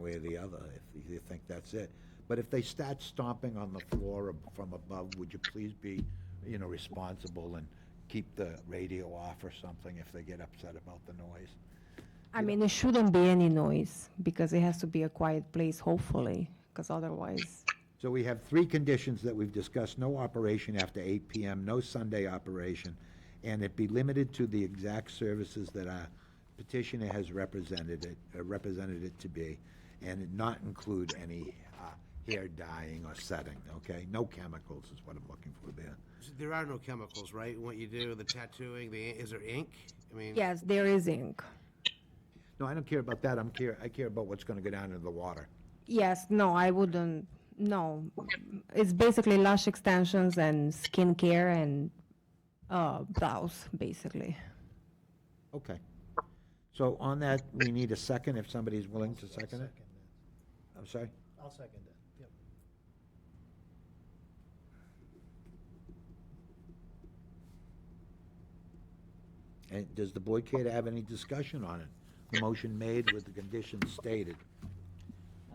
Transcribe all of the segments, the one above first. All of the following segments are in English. way or the other, if you think that's it. But if they start stomping on the floor ab- from above, would you please be, you know, responsible and keep the radio off or something if they get upset about the noise? I mean, it shouldn't be any noise because it has to be a quiet place, hopefully, because otherwise, So we have three conditions that we've discussed, no operation after eight PM, no Sunday operation, and it be limited to the exact services that our petitioner has represented it, uh, represented it to be, and it not include any uh, hair dyeing or setting, okay? No chemicals is what I'm looking for there. There are no chemicals, right? What you do, the tattooing, the, is there ink? I mean, yes, there is ink. No, I don't care about that, I'm care, I care about what's gonna go down into the water. Yes, no, I wouldn't. No, it's basically lash extensions and skincare and uh, brows, basically. Okay. So on that, we need a second, if somebody's willing to second it? I'm sorry? I'll second it, yep. And does the board care to have any discussion on it? The motion made with the conditions stated.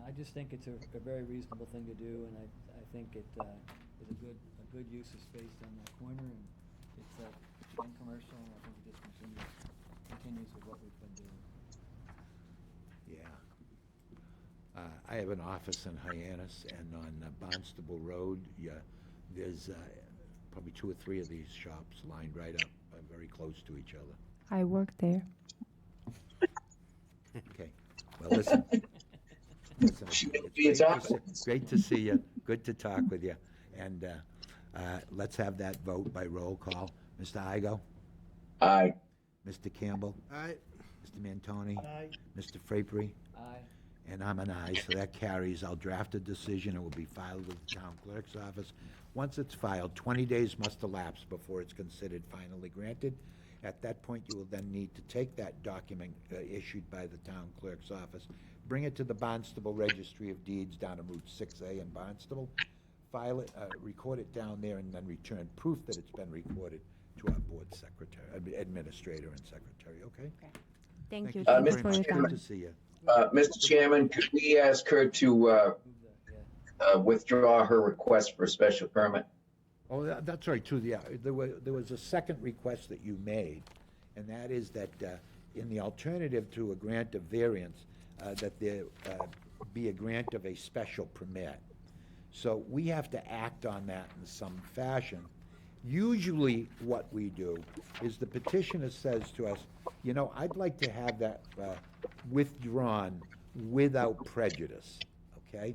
I just think it's a, a very reasonable thing to do, and I, I think it, uh, is a good, a good use of space on that corner, and it's, uh, non-commercial, and I think it just continues, continues with what we've been doing. Yeah. Uh, I have an office in Hyannis and on uh, Barnstable Road, yeah, there's, uh, probably two or three of these shops lined right up, uh, very close to each other. I work there. Okay, well, listen. Listen, it's great to see- Great to see you, good to talk with you, and, uh, uh, let's have that vote by roll call. Mr. Igo? Aye. Mr. Campbell? all right, Mr. Mantoni? Aye, Mr. Frapery? Aye, And I'm an aye, so that carries. I'll draft a decision. It will be filed with the town clerk's office. Once it's filed, 20 days must elapse before it's considered finally granted. At that point, you will then need to take that document uh, issued by the town clerk's office, bring it to the Barnstable Registry of Deeds down on Route 6A in Barnstable, file it, uh, record it down there, and then return proof that it's been recorded to our board secretary, admi- administrator and secretary, okay? Thank you. Uh, you Thank you very for your much. time. Good to see you. Uh, Mr. Chairman, could we ask her to uh, move that, yeah. uh, withdraw her request for a special permit? Oh, tha- that's right, too, yeah. There was, there was a second request that you made, and that is that uh, in the alternative to a grant of variance, uh, that there uh, be a grant of a special permit. So we have to act on that in some fashion. Usually, what we do is the petitioner says to us, you know, I'd like to have that uh, withdrawn without prejudice, okay?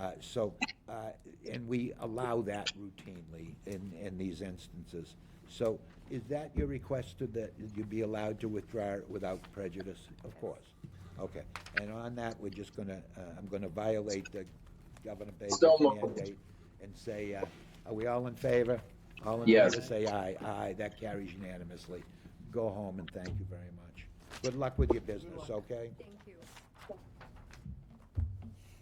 Uh, So, uh, and we allow that routinely in, in these instances. So is that your request to that you be allowed to withdraw it without prejudice? Of course. Okay, and on that, we're just gonna, uh, I'm gonna violate the Governor Baker's So moved. mandate and say, uh, are we all in favor? All in Yes. favor, say aye. Aye, that carries unanimously. Go home and thank you very much. Good luck with your business, okay?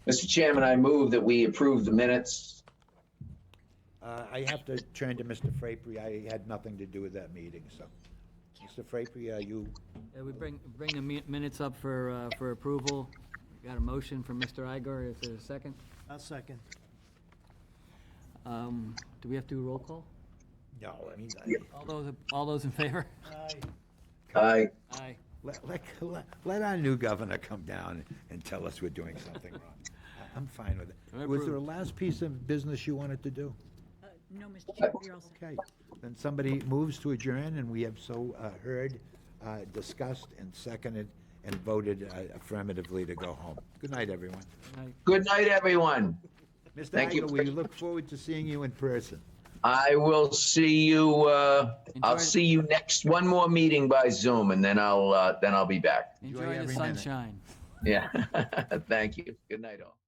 Mr. Chairman, I move that we approve the minutes. Uh, I have to turn to Mr. Frapery. I had nothing to do with that meeting, so. Mr. Frapery, are you, Yeah, we bring, bring the mi- minutes up for, uh, for approval. Got a motion from Mr. Igor, is there a second? I'll second. Um, do we have to do roll call? no, I mean, I- All those, all those in favor? Aye, Aye. Aye. let, let, let- let our new governor come down and tell us we're doing something wrong. I- I'm fine with I it. Was there a last piece of business you wanted to do? Uh, No, Mr. Chairman, you're all set. Okay, then somebody moves to adjourn, and we have so uh, heard, uh, discussed, and seconded, and voted uh, affirmatively to go home. Good night, everyone. Aye. Good night, everyone. Mr. Thank you. Igo, we look forward to seeing you in person. I will see you, uh, I'll Enjoy- see you next, one more meeting by Zoom, and then I'll, uh, then I'll be back. Enjoy Enjoy the every minute. sunshine. Yeah. Thank you. Good night, all.